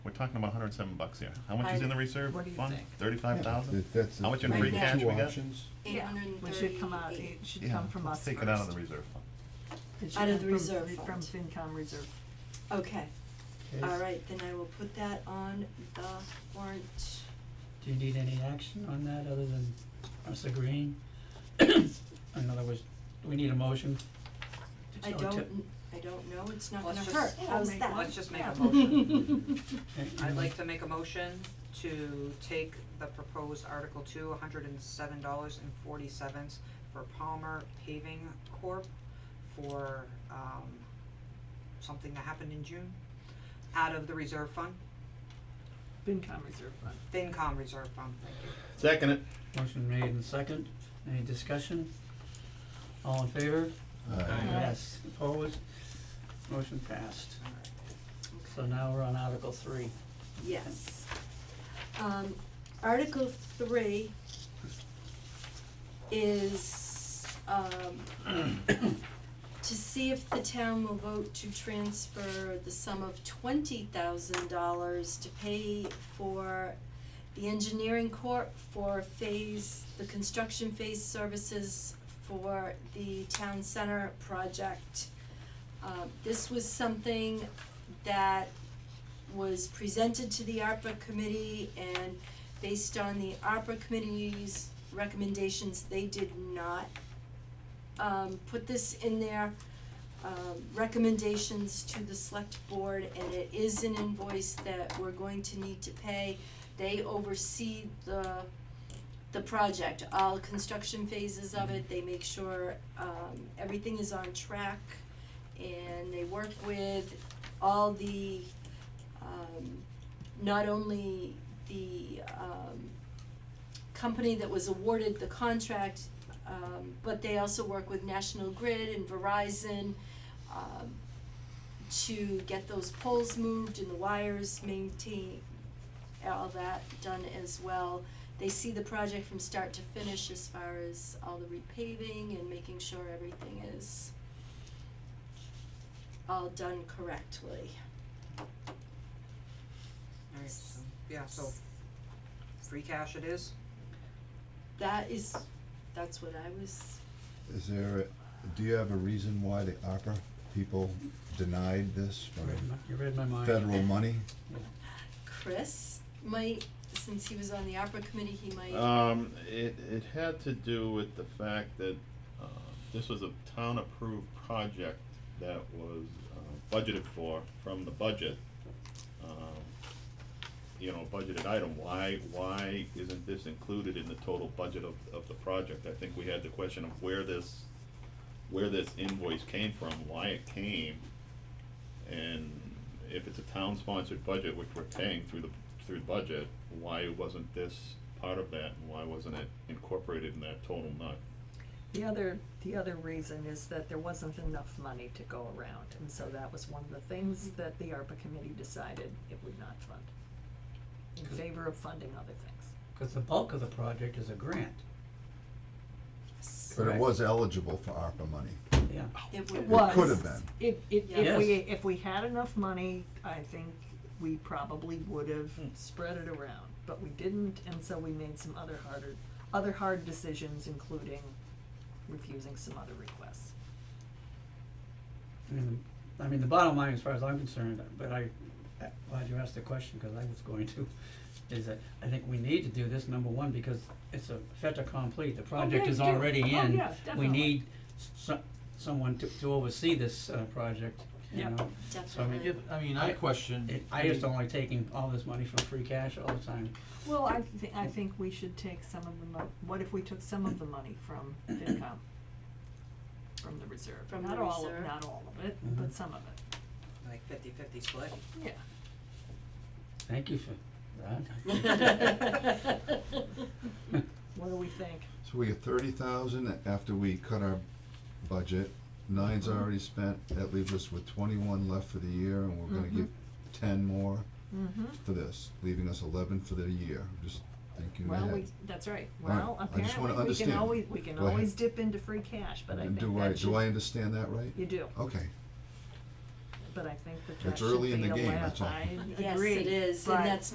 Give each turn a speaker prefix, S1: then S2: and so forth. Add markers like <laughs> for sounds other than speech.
S1: talking about hundred and seven bucks here. How much is
S2: I-
S1: in the reserve
S2: what do you
S1: fund?
S2: think?
S1: Thirty-five thousand?
S3: That- That's.
S1: How much in
S3: the
S1: free
S3: two
S1: cash we got?
S3: options.
S2: Yeah, It should come out, it
S4: 838.
S2: should
S1: Yeah,
S2: come from
S1: let's
S2: us
S1: Take it out of the
S2: first.
S1: reserve fund.
S2: It should
S4: Out of
S2: come
S4: the
S2: from-
S4: reserve
S2: From
S4: fund.
S2: FinCom reserve.
S4: Okay,
S5: Okay,
S4: all right, then I will put that on the warrant.
S5: Do you need any action on that other than us agreeing? <coughs> In other words, do we need a motion?
S4: I
S5: So to-
S4: don't, kn- I don't know, it's not gonna
S6: Let's
S4: hurt,
S6: just-
S4: how's
S2: We'll make-
S4: that?
S6: Let's just make
S2: Yeah.
S6: a motion.
S5: Okay,
S6: I'd like to make a motion to take the proposed Article two, hundred and seven dollars and forty cents for Palmer Paving Corp. for, um, something that happened in June, out of the reserve fund,
S2: FinCom reserve fund.
S6: FinCom reserve fund, thank you.
S1: Second it.
S5: Motion made and second, any discussion? All in favor?
S3: Uh,
S5: Yes, opposed? Motion passed. So now we're on Article three.
S4: Yes. Um, Article three is, um, <coughs> to see if the town will vote to transfer the sum of twenty thousand dollars to pay for the engineering corp for phase, the construction phase services for the town center project. Uh, this was something that was presented to the ARPA committee and based on the ARPA committee's recommendations, they did not um put this in their um recommendations to the select board and it is an invoice that we're going to need to pay. They oversee the the project, all construction phases of it, they make sure um everything is on track and they work with all the um, not only the um, company that was awarded the contract, um, but they also work with National Grid and Verizon um, to get those poles moved and the wires maintained, all that done as well. They see the project from start to finish as far as all the repaving and making sure everything is all done correctly.
S6: Alright, so, yeah, so free cash it is,
S4: That is, that's what I was,
S3: Is there, a- do you have a reason why the opera people denied this
S5: You read
S3: from
S5: my- You read my mind.
S3: federal money?
S4: Chris might, since he was on the opera committee, he might,
S1: Um, it, it had to do with the fact that, uh, this was a town-approved project that was, uh, budgeted for from the budget. Um, You know, budgeted item, why, why isn't this included in the total budget of, of the project? I think we had the question of where this, where this invoice came from, why it came. And if it's a town-sponsored budget, which we're paying through the, through the budget, why wasn't this part of that? and Why wasn't it incorporated in that total nut?
S2: The other, the other reason is that there wasn't enough money to go around, and so that was one of the things that the ARPA committee decided it would not fund. In favor of funding other things.
S5: Cause the bulk of the project is a grant,
S3: But it
S5: Correct.
S3: was eligible for ARPA money.
S5: yeah.
S4: it
S2: It
S4: would.
S2: was.
S3: could have been.
S2: If, if, if
S5: Yes.
S2: we, if we had enough money, I think we probably would have spread it around, but we didn't, and so we made some other harder, other hard decisions, including refusing some other requests.
S5: I mean, I mean, the bottom line, as far as I'm concerned, but I, glad you asked the question, cause I was going to, is that I think we need to do this, number one, because it's a fait accompli, the project
S2: yeah,
S5: is
S2: you do.
S5: already
S2: Oh,
S5: in.
S2: yeah,
S5: We
S2: definitely.
S5: need so, someone to, to oversee this, uh, project, you
S2: Yeah.
S5: know? So I mean,
S4: Definitely.
S7: I mean, I
S5: I-
S7: question,
S5: It, I
S7: I mean,
S5: just don't like taking all this money from free cash all the time.
S2: Well, I thi- I think we should take some of the mo- what if we took some of the money from FinCom? From the reserve,
S4: From
S2: not
S4: the
S2: all of,
S4: reserve.
S2: not all of it,
S5: Mhm.
S2: but some of it,
S6: like fifty-fifty split.
S2: yeah.
S5: Thank you for
S4: <laughs>
S5: that.
S2: What do we think?
S3: So we get thirty thousand after we cut our budget, nine's
S1: Mm-hmm.
S3: already spent, that leaves us with twenty-one left for the year, and we're gonna give ten more
S2: Mm-hmm.
S3: for this, leaving us eleven for the year, just thinking
S2: Well,
S3: ahead.
S2: we, that's right,
S3: All right,
S2: well,
S3: I just
S2: apparently,
S3: wanna
S2: we can
S3: understand.
S2: always, we can
S3: Go ahead.
S2: always dip into free cash, but I think
S3: Do I,
S2: that should,
S3: do I understand that right?
S2: you do,
S3: Okay,
S2: but I think that
S3: It's
S2: that should
S3: early in
S2: be
S3: the game,
S2: allowed.
S3: that's all.
S2: I
S4: Yes,
S2: agree,
S4: it is,
S2: but-
S4: and that's